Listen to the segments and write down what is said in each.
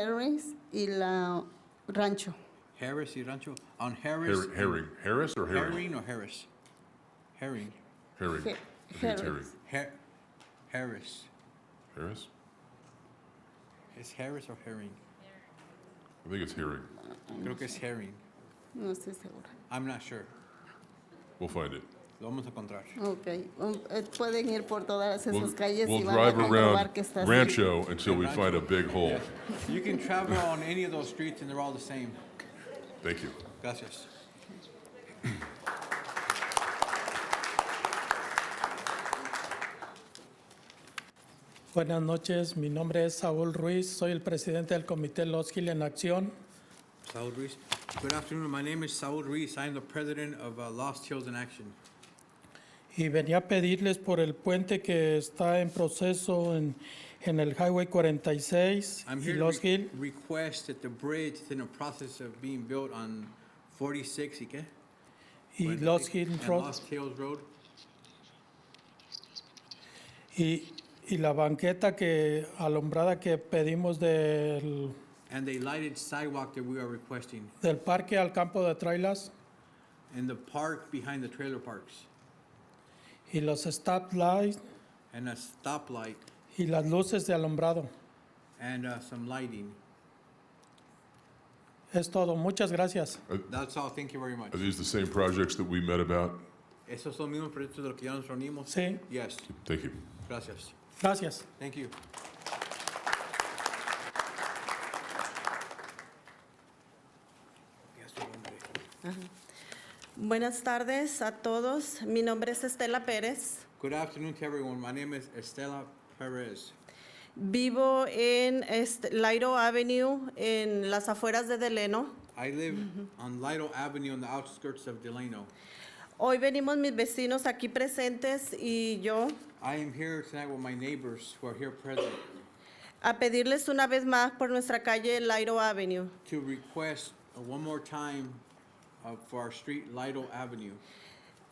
Harris y la Rancho. Harris y Rancho, on Harris. Her- Herring, Harris or Herring? Herring or Harris? Herring, Herring. He- I think it's Herring. Harris. Har- Harris. Harris? ¿Es Harris o Herring? I think it's Herring. Creo que es Herring. No estoy segura. I'm not sure. We'll find it. Lo vamos a encontrar. Ok, um, eh, pueden ir por todas We'll, esas calles we'll y van a drive comprobar around que está así. Rancho until we find a big hole. You can travel on any of those streets and they're all the same. Thank you. Gracias. Buenas noches, mi nombre es Saúl Ruiz, soy el presidente del Comité Los Gil en Acción. Saul Ruiz. Good afternoon. My name is Saul Ruiz. I am the president of uh, Lost Hills in Action. Y venía a pedirles por el puente que está en proceso en, en el Highway 46 I'm y here to Los re- Gil. request that the bridge is in the process of being built on 46, ¿y qué? Y Los Gil And Road. Lost Hills Road. Y, y la banqueta que alumbrada que pedimos del, And the lighted sidewalk that we are requesting del parque al campo de trailers in the park behind the trailer parks. y los stop lights And a stoplight y las luces de alumbrado. and uh, some lighting. Es todo, muchas gracias. That's all. Thank you very much. Are these the same projects that we met about? Esos son mismos proyectos de los que ya nos reunimos. Sí, Yes, Thank you. gracias. gracias. Thank you. Ya su nombre. Buenas tardes a todos. Mi nombre es Estela Pérez. Good afternoon to everyone. My name is Estela Perez. Vivo en este- Lairo Avenue, en las afueras de Deleno. I live on Lido Avenue on the outskirts of Delano. Hoy venimos mis vecinos aquí presentes y yo I am here tonight with my neighbors who are here present a pedirles una vez más por nuestra calle Lairo Avenue. to request uh, one more time uh, for our street Lido Avenue.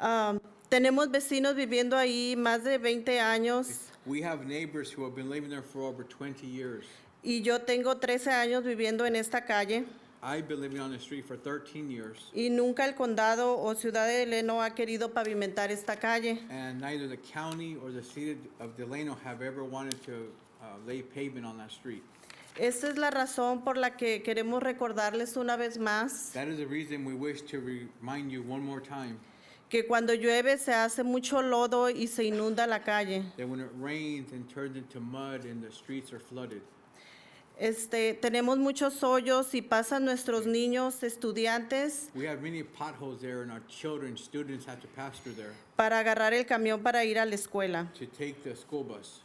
Ah, tenemos vecinos viviendo ahí más de 20 años We have neighbors who have been living there for over 20 years. y yo tengo 13 años viviendo en esta calle I've been living on the street for 13 years, y nunca el condado o ciudad de Deleno ha querido pavimentar esta calle. and neither the county or the city of Delano have ever wanted to uh, lay pavement on that street. Esta es la razón por la que queremos recordarles una vez más That is the reason we wish to remind you one more time que cuando llueve se hace mucho lodo y se inunda la calle. that when it rains and turns into mud and the streets are flooded, Este, tenemos muchos hoyos y pasan nuestros niños, estudiantes, we have many potholes there, and our children, students have to pass through there para agarrar el camión para ir a la escuela. to take the school bus.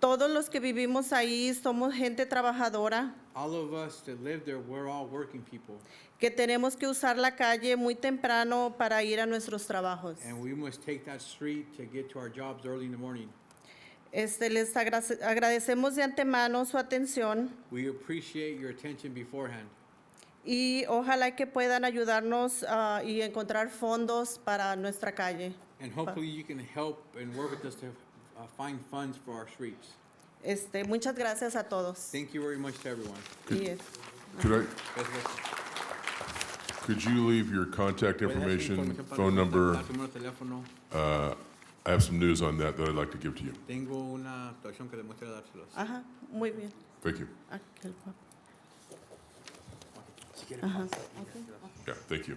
Todos los que vivimos ahí somos gente trabajadora All of us that live there, we're all working people, que tenemos que usar la calle muy temprano para ir a nuestros trabajos. and we must take that street to get to our jobs early in the morning. Este, les agra- agradecemos de antemano su atención. We appreciate your attention beforehand. y ojalá que puedan ayudarnos ah, y encontrar fondos para nuestra calle. And hopefully you can help and work with us to uh, find funds for our streets. Este, muchas gracias a todos. Thank you very much to everyone. Y, eh, Could I, Could you leave your contact information, phone number? Uh, I have some news on that that I'd like to give to you. Tengo una actuación que demuestra dárselos. Ajá, muy bien. Ah, Thank you. Aquí el papel. Yeah, thank you.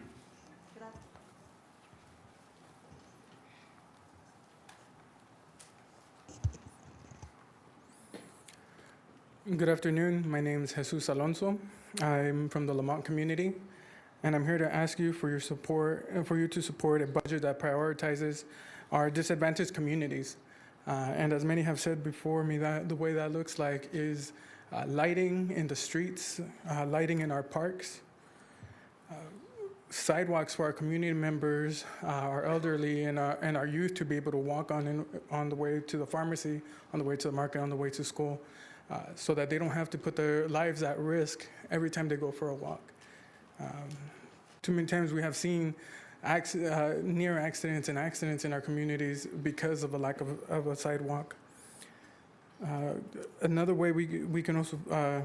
Good afternoon. My name is Jesus Alonso. I'm from the Lamont community, and I'm here to ask you for your support, uh, for you to support a budget that prioritizes our disadvantaged communities. Uh, and as many have said before me, that the way that looks like is uh, lighting in the streets, uh, lighting in our parks, uh, sidewalks for our community members, uh, our elderly, and our, and our youth to be able to walk on, in, on the way to the pharmacy, on the way to the market, on the way to school, uh, so that they don't have to put their lives at risk every time they go for a walk. Um, too many times we have seen acc- uh, near accidents and accidents in our communities because of a lack of, of a sidewalk. Uh, another way we, we can also uh,